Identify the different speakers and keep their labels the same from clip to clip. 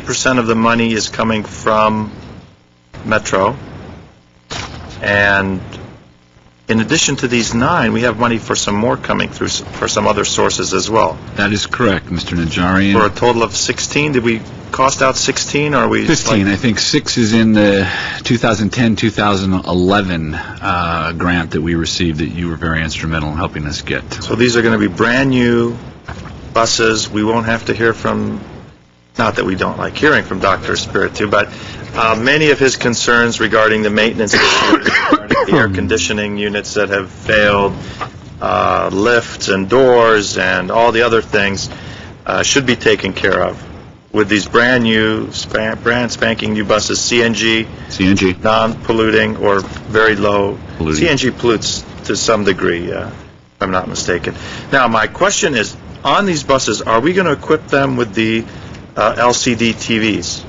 Speaker 1: percent of the money is coming from Metro. And in addition to these nine, we have money for some more coming through, s- for some other sources as well.
Speaker 2: That is correct, Mr. Najarian.
Speaker 1: For a total of 16, did we cost out 16, or are we? just like-
Speaker 2: 15, I think six is in the 2010-2011 uh, grant that we received that you were very instrumental in helping us get.
Speaker 1: So these are going to be brand-new buses. We won't have to hear from, not that we don't like hearing from Dr. Spiritu, but uh, many of his concerns regarding the maintenance issues, regarding the air conditioning units that have failed, uh, lifts and doors and all the other things uh, should be taken care of with these brand-new, span- brand spanking new buses, CNG,
Speaker 2: CNG?
Speaker 1: non-polluting or very low.
Speaker 2: Polluting.
Speaker 1: CNG pollutes to some degree, uh, if I'm not mistaken. Now, my question is, on these buses, are we going to equip them with the uh, LCD TVs?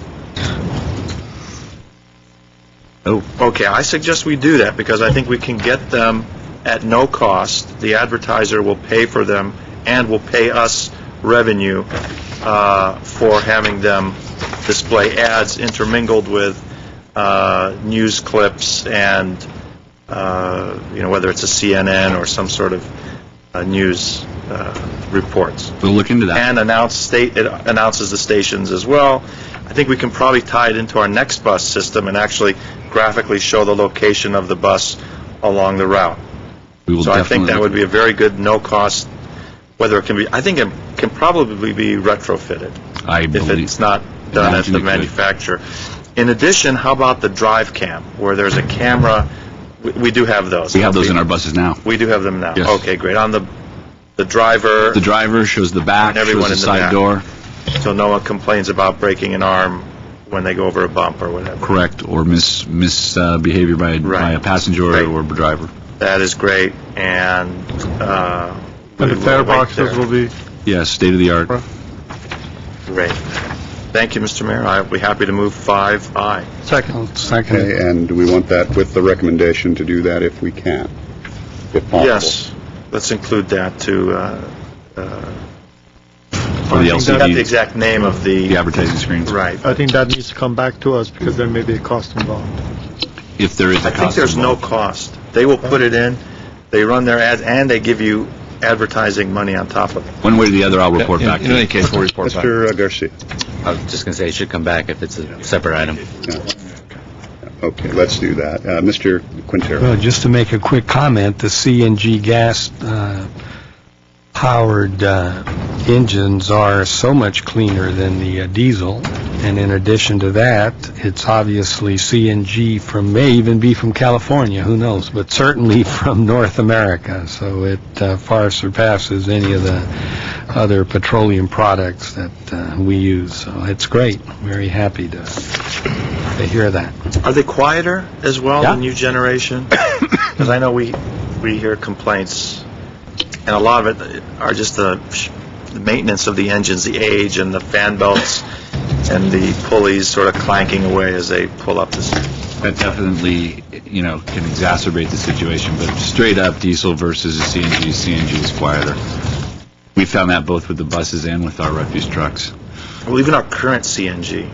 Speaker 2: Oh.
Speaker 1: Okay, I suggest we do that because I think we can get them at no cost. The advertiser will pay for them and will pay us revenue uh, for having them display ads intermingled with uh, news clips and, uh, you know, whether it's a CNN or some sort of uh, news uh, reports
Speaker 2: We'll look into that.
Speaker 1: and announce state, it announces the stations as well. I think we can probably tie it into our next bus system and actually graphically show the location of the bus along the route.
Speaker 2: We will
Speaker 1: So I think
Speaker 2: definitely
Speaker 1: that
Speaker 2: look-
Speaker 1: would be a very good no-cost, whether it can be, I think it can probably be retrofitted
Speaker 2: I
Speaker 1: if
Speaker 2: believe,
Speaker 1: it's not done at
Speaker 2: Imagine
Speaker 1: the
Speaker 2: it could.
Speaker 1: manufacturer. In addition, how about the drive cam, where there's a camera? We- We do have those.
Speaker 2: we have those in our buses now.
Speaker 1: We do have them now.
Speaker 2: Yes.
Speaker 1: Okay, great. On the, the driver.
Speaker 2: The driver shows the back,
Speaker 1: And everyone
Speaker 2: shows the
Speaker 1: in the
Speaker 2: side
Speaker 1: back.
Speaker 2: door,
Speaker 1: So no one complains about breaking an arm when they go over a bump or whatever.
Speaker 2: correct, or mis misbehavior by by
Speaker 1: Right.
Speaker 2: a passenger
Speaker 1: Right.
Speaker 2: or a driver.
Speaker 1: That is great, and, uh...
Speaker 3: And the
Speaker 1: we
Speaker 3: fare
Speaker 1: will wait
Speaker 3: boxes
Speaker 1: there.
Speaker 3: will be,
Speaker 2: Yes, state-of-the-art.
Speaker 3: Right.
Speaker 1: Great. Thank you, Mr. Mayor. I'll be happy to move five I.
Speaker 3: second,
Speaker 4: Okay, and we want that with the recommendation to do that if we can, if possible.
Speaker 1: Yes, let's include that to, uh...
Speaker 2: For the
Speaker 1: I forgot the
Speaker 2: LCD,
Speaker 1: exact name of
Speaker 2: the
Speaker 1: the...
Speaker 2: advertising screens.
Speaker 1: Right.
Speaker 3: I think that needs to come back to us because there may be a cost involved.
Speaker 2: If there is a
Speaker 1: I
Speaker 2: cost
Speaker 1: think there's no
Speaker 2: involved.
Speaker 1: cost. They will put it in, they run their ads, and they give you advertising money on top of it.
Speaker 2: One way or the other, I'll report back to you.
Speaker 5: case, we'll report
Speaker 4: Mr. Uh, Garcia,
Speaker 5: I was just going to say, it should come back if it's a separate item.
Speaker 4: okay, let's do that. Uh, Mr. Quintero,
Speaker 6: Well, just to make a quick comment, the CNG gas-powered uh, engines are so much cleaner than the uh, diesel, and in addition to that, it's obviously CNG from, may even be from California, who knows, but certainly from North America, so it uh, far surpasses any of the other petroleum products that uh, we use, so it's great, very happy to to hear that.
Speaker 1: Are they quieter as well, the
Speaker 6: Yeah.
Speaker 1: new generation? Because I know we, we hear complaints, and a lot of it are just the sh- the maintenance of the engines, the age, and the fan belts, and the pulleys sort of clanking away as they pull up this.
Speaker 2: That definitely, you know, can exacerbate the situation, but straight up diesel versus a CNG, CNG is quieter. We found that both with the buses and with our refuse trucks.
Speaker 1: Well, even our current CNG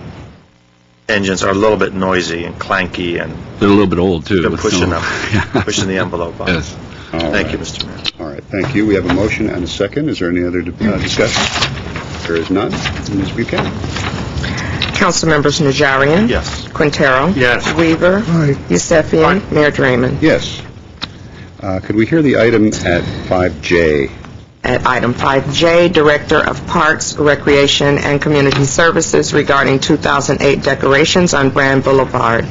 Speaker 1: engines are a little bit noisy and clanky, and
Speaker 2: They're a little bit old, too.
Speaker 1: they're
Speaker 2: with some-
Speaker 1: pushing up,
Speaker 2: Yeah.
Speaker 1: pushing the envelope up.
Speaker 2: Yes.
Speaker 4: all
Speaker 1: Thank you,
Speaker 4: right,
Speaker 1: Mr. Mayor.
Speaker 4: all right, thank you. We have a motion and a second. Is there any other uh, discussion? There is none. Ms. Buchanan?
Speaker 7: Councilmembers Najarian.
Speaker 1: Yes.
Speaker 7: Quintero.
Speaker 1: Yes.
Speaker 7: Weaver. Yusefian. Mayor Drayman.
Speaker 4: Yes. Uh, Could we hear the item at 5J?
Speaker 7: At item 5J, Director of Parks, Recreation, and Community Services regarding 2008 decorations on Brand Boulevard.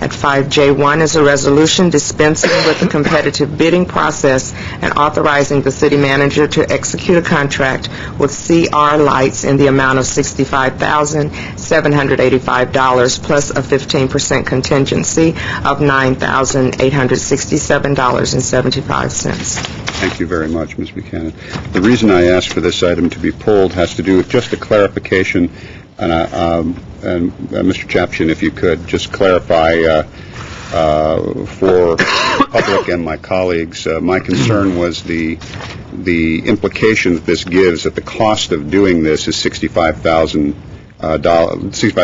Speaker 7: At 5J1 is a resolution dispensing with the competitive bidding process and authorizing the city manager to execute a contract with CR Lights in the amount of $65,785 plus a 15% contingency of $9,867.75.
Speaker 4: Thank you very much, Ms. Buchanan. The reason I asked for this item to be pulled has to do with just a clarification, and, uh, um, and, uh, Mr. Chapchan, if you could, just clarify uh, uh, for the public and my colleagues, uh, my concern was the, the implication that this gives, that the cost of doing this is $65,000, uh, doll- $65,000